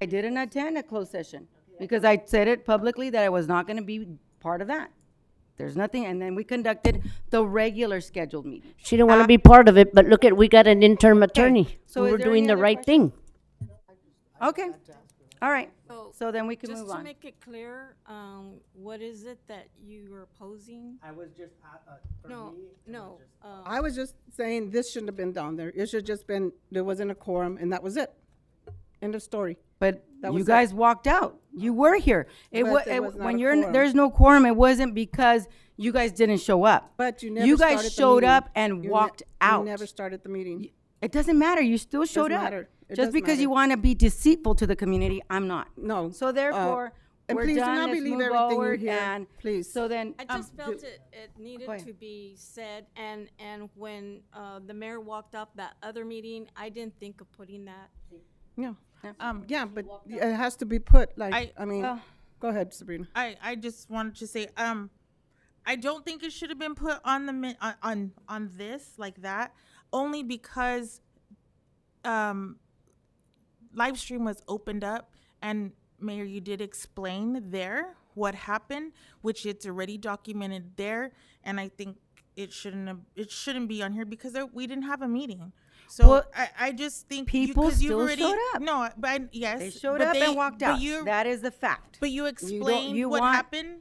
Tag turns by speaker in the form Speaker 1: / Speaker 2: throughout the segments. Speaker 1: I didn't attend a closed session because I said it publicly that I was not gonna be part of that. There's nothing, and then we conducted the regular scheduled meeting.
Speaker 2: She didn't want to be part of it, but look at, we got an interim attorney.
Speaker 1: Uh, so is
Speaker 2: We're
Speaker 1: there
Speaker 2: doing
Speaker 1: any
Speaker 2: the
Speaker 1: other
Speaker 2: right
Speaker 1: questions?
Speaker 2: thing.
Speaker 1: Okay, all right,
Speaker 3: So,
Speaker 1: so then we can
Speaker 3: Just
Speaker 1: move
Speaker 3: to
Speaker 1: on.
Speaker 3: make it clear, um, what is it that you are opposing?
Speaker 4: I was just, uh, uh, for
Speaker 3: No,
Speaker 4: me,
Speaker 3: no, uh,
Speaker 5: I was just saying this shouldn't have been down there. It should have just been, there wasn't a quorum and that was it. End of story.
Speaker 1: But
Speaker 5: That
Speaker 1: you
Speaker 5: was it.
Speaker 1: guys walked out. You were here. It
Speaker 5: But
Speaker 1: was,
Speaker 5: there was not
Speaker 1: when
Speaker 5: a
Speaker 1: you're, in-
Speaker 5: quorum.
Speaker 1: there's no quorum, it wasn't because you guys didn't show up.
Speaker 5: But you never
Speaker 1: You
Speaker 5: started the
Speaker 1: guys showed
Speaker 5: meeting.
Speaker 1: up and
Speaker 5: You ne-
Speaker 1: walked out.
Speaker 5: You never started the meeting.
Speaker 1: It doesn't matter. You still showed up.
Speaker 5: matter. It
Speaker 1: Just
Speaker 5: does
Speaker 1: because you
Speaker 5: matter.
Speaker 1: want to be deceitful to the community, I'm not.
Speaker 5: No.
Speaker 1: So
Speaker 5: Uh,
Speaker 1: therefore,
Speaker 5: and
Speaker 1: we're
Speaker 5: please do
Speaker 1: done.
Speaker 5: not
Speaker 1: Let's
Speaker 5: believe
Speaker 1: move
Speaker 5: everything you
Speaker 1: forward
Speaker 5: hear.
Speaker 1: and
Speaker 5: Please.
Speaker 1: So then,
Speaker 3: I
Speaker 1: um,
Speaker 3: just felt it, it needed
Speaker 1: ahead.
Speaker 3: to be said, and, and when, uh, the mayor walked off that other meeting, I didn't think of putting that.
Speaker 5: Yeah.
Speaker 6: Um,
Speaker 5: Yeah, but it has to be put, like,
Speaker 6: I-
Speaker 5: I mean,
Speaker 1: Well-
Speaker 5: go ahead, Sabrina.
Speaker 6: I, I just wanted to say, um, I don't think it should have been put on the min- on, on on this like that, only because, um, live stream was opened up, and Mayor, you did explain there what happened, which it's already documented there, and I think it shouldn't have, it shouldn't be on here because there, we didn't have a meeting. So
Speaker 1: Well,
Speaker 6: I, I just think
Speaker 1: people
Speaker 6: you, 'cause you've
Speaker 1: still
Speaker 6: already,
Speaker 1: showed up.
Speaker 6: No, but I- yes,
Speaker 1: they showed
Speaker 6: but
Speaker 1: up
Speaker 6: they-
Speaker 1: and walked
Speaker 6: but
Speaker 1: out.
Speaker 6: you-
Speaker 1: That is the fact.
Speaker 6: but you
Speaker 1: don't-
Speaker 6: explained
Speaker 1: you
Speaker 6: what
Speaker 1: want-
Speaker 6: happened.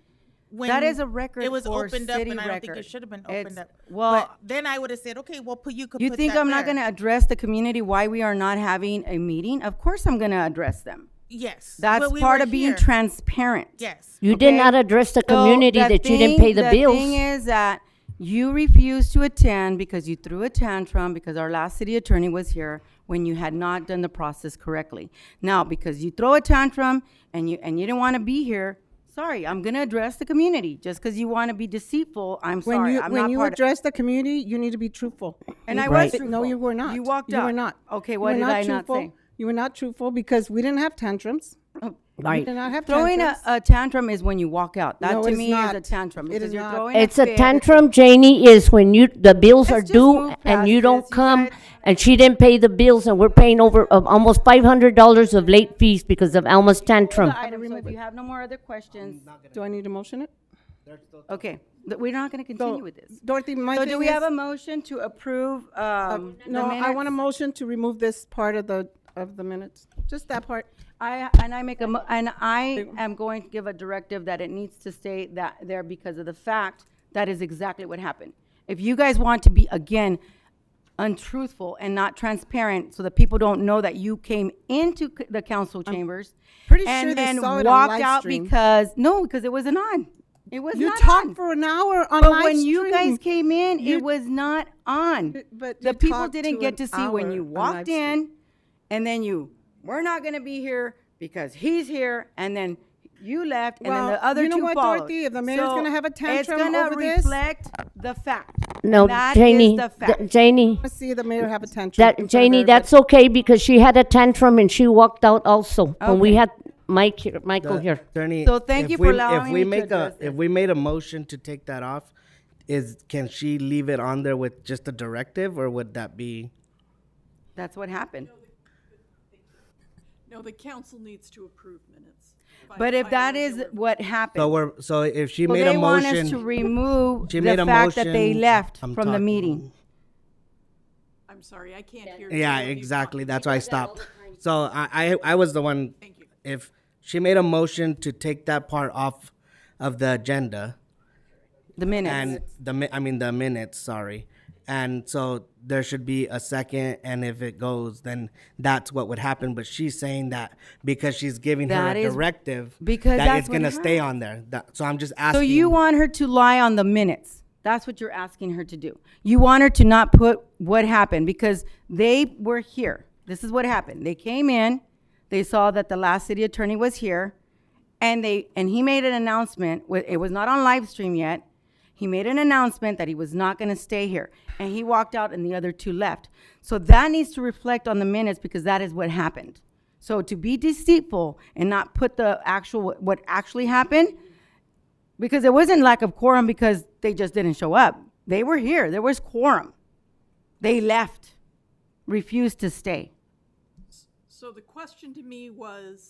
Speaker 6: When
Speaker 1: That is a record
Speaker 6: It was
Speaker 1: for
Speaker 6: opened up,
Speaker 1: city
Speaker 6: and I don't think
Speaker 1: record.
Speaker 6: it should have been
Speaker 1: It's-
Speaker 6: opened up.
Speaker 1: well-
Speaker 6: but then I would have said, okay, well, put you could.
Speaker 1: You
Speaker 6: put
Speaker 1: think
Speaker 6: that
Speaker 1: I'm not
Speaker 6: there.
Speaker 1: going to address the community why we are not having a meeting? Of course I'm going to address them.
Speaker 6: Yes,
Speaker 1: That's
Speaker 6: but we
Speaker 1: part
Speaker 6: were
Speaker 1: of being
Speaker 6: here.
Speaker 1: transparent.
Speaker 6: Yes,
Speaker 2: You did
Speaker 1: Okay.
Speaker 2: not address the
Speaker 1: So
Speaker 2: community
Speaker 1: the
Speaker 2: that you didn't
Speaker 1: thing-
Speaker 2: pay the
Speaker 1: The thing
Speaker 2: bills.
Speaker 1: is that you refused to attend because you threw a tantrum because our last city attorney was here when you had not done the process correctly. Now, because you throw a tantrum and you, and you didn't want to be here, sorry, I'm going to address the community. Just because you want to be deceitful, I'm
Speaker 5: When
Speaker 1: sorry,
Speaker 5: you,
Speaker 1: I'm
Speaker 5: when
Speaker 1: not
Speaker 5: you
Speaker 1: part of.
Speaker 5: address the community, you need to be truthful.
Speaker 1: And I
Speaker 5: You were
Speaker 1: was
Speaker 5: tru- No,
Speaker 1: truthful.
Speaker 5: you were not.
Speaker 1: You walked
Speaker 5: You
Speaker 1: out.
Speaker 5: were not.
Speaker 1: Okay,
Speaker 5: You
Speaker 1: what
Speaker 5: were
Speaker 1: did I not
Speaker 5: truthful.
Speaker 1: say?
Speaker 5: You were not truthful because we didn't have tantrums. We
Speaker 2: Right.
Speaker 5: did not have
Speaker 1: Throwing a,
Speaker 5: tantrums.
Speaker 1: a tantrum is when you walk out. That
Speaker 5: No,
Speaker 1: to
Speaker 5: it is
Speaker 1: me is
Speaker 5: not.
Speaker 1: a tantrum.
Speaker 5: It
Speaker 1: because
Speaker 5: is
Speaker 1: you're
Speaker 5: not.
Speaker 1: throwing
Speaker 2: It's a
Speaker 1: fit.
Speaker 2: tantrum, Janie, is when you, the bills are
Speaker 1: Let's just move
Speaker 2: due
Speaker 1: past
Speaker 2: and you
Speaker 1: this,
Speaker 2: don't
Speaker 1: you
Speaker 2: come,
Speaker 1: guys.
Speaker 2: and she didn't pay the bills, and we're paying over, of almost five hundred dollars of late fees because of Alma's tantrum.
Speaker 1: The item, so if you have no more other questions,
Speaker 5: Do I need to motion it?
Speaker 1: okay, th- we're not going to continue with this.
Speaker 5: Dorothy, my
Speaker 1: So
Speaker 5: thing
Speaker 1: do we
Speaker 5: is-
Speaker 1: have a motion to approve, um, the
Speaker 5: No, I want a
Speaker 1: minutes?
Speaker 5: motion to remove this part of the, of the minutes, just that part.
Speaker 1: I, and I make a, mo- and I am going to give a directive that it needs to stay that there because of the fact that is exactly what happened. If you guys want to be, again, untruthful and not transparent, so that people don't know that you came into c- the council chambers.
Speaker 5: pretty sure
Speaker 1: and
Speaker 5: they
Speaker 1: then
Speaker 5: saw it on
Speaker 1: walked
Speaker 5: live
Speaker 1: out
Speaker 5: stream.
Speaker 1: Because, no, because it wasn't on. It was
Speaker 5: You
Speaker 1: not on.
Speaker 5: talked for an hour on
Speaker 1: But
Speaker 5: live
Speaker 1: when you guys
Speaker 5: stream.
Speaker 1: came in, it was not on.
Speaker 5: But- but
Speaker 1: the
Speaker 5: you
Speaker 1: people
Speaker 5: talked
Speaker 1: didn't
Speaker 5: to
Speaker 1: get to
Speaker 5: an
Speaker 1: see when
Speaker 5: hour
Speaker 1: you
Speaker 5: on
Speaker 1: walked
Speaker 5: live stream.
Speaker 1: in, and then you, we're not going to be here because he's here, and then you left, and then
Speaker 5: Well,
Speaker 1: the other
Speaker 5: you know
Speaker 1: two
Speaker 5: what,
Speaker 1: followed.
Speaker 5: Dorothy? If the mayor's gonna have a tantrum over
Speaker 1: it's
Speaker 5: this-
Speaker 1: going to reflect the fact.
Speaker 2: No,
Speaker 1: that is
Speaker 2: Janie,
Speaker 1: the
Speaker 2: th-
Speaker 1: fact.
Speaker 2: Janie,
Speaker 5: I see the mayor have a tantrum. in front
Speaker 2: that,
Speaker 5: of
Speaker 2: Janie,
Speaker 5: everybody.
Speaker 2: that's okay because she had a tantrum and she walked out also, when we
Speaker 1: Okay.
Speaker 2: had Mike here, Michael here.
Speaker 4: Attorney.
Speaker 1: So thank
Speaker 4: if
Speaker 1: you for
Speaker 4: we-
Speaker 1: allowing
Speaker 4: If
Speaker 1: me
Speaker 4: we
Speaker 1: to
Speaker 4: make a,
Speaker 1: address it.
Speaker 4: if we made a motion to take that off, is, can she leave it on there with just a directive or would that be?
Speaker 1: That's what happened.
Speaker 7: No, the council needs to approve minutes. by-
Speaker 1: But if
Speaker 7: by
Speaker 1: that is
Speaker 7: regular-
Speaker 1: what happened,
Speaker 4: So we're, so if she
Speaker 1: so
Speaker 4: made a
Speaker 1: they want us to
Speaker 4: motion,
Speaker 1: remove
Speaker 4: She
Speaker 1: the
Speaker 4: made a
Speaker 1: fact that they
Speaker 4: motion.
Speaker 1: left
Speaker 4: I'm
Speaker 1: from the
Speaker 4: talking.
Speaker 1: meeting.
Speaker 7: I'm sorry, I can't hear.
Speaker 4: yeah,
Speaker 7: you.
Speaker 4: exactly. That's why I stopped. So I, I, I was the one, if she made a motion to take that part off of the agenda
Speaker 1: The minutes.
Speaker 4: and the, mi- I mean, the minutes, sorry. And so there should be a second and if it goes, then that's what would happen. But she's saying that because she's giving her
Speaker 1: That
Speaker 4: a
Speaker 1: is-
Speaker 4: directive.
Speaker 1: because
Speaker 4: that
Speaker 1: that's
Speaker 4: it's
Speaker 1: what
Speaker 4: gonna stay on there. That- so I'm just asking.
Speaker 1: So you want her to lie on the minutes? That's what you're asking her to do. You want her to not put what happened because they were here. This is what happened. They came in, they saw that the last city attorney was here, and they and he made an announcement. wi- It was not on live stream yet. He made an announcement that he was not going to stay here, and he walked out, and the other two left. So that needs to reflect on the minutes because that is what happened. So to be deceitful and not put the actual what actually happened because it wasn't lack of quorum because they just didn't show up. They were here. There was quorum. They left, refused to stay.
Speaker 7: So the question to me was,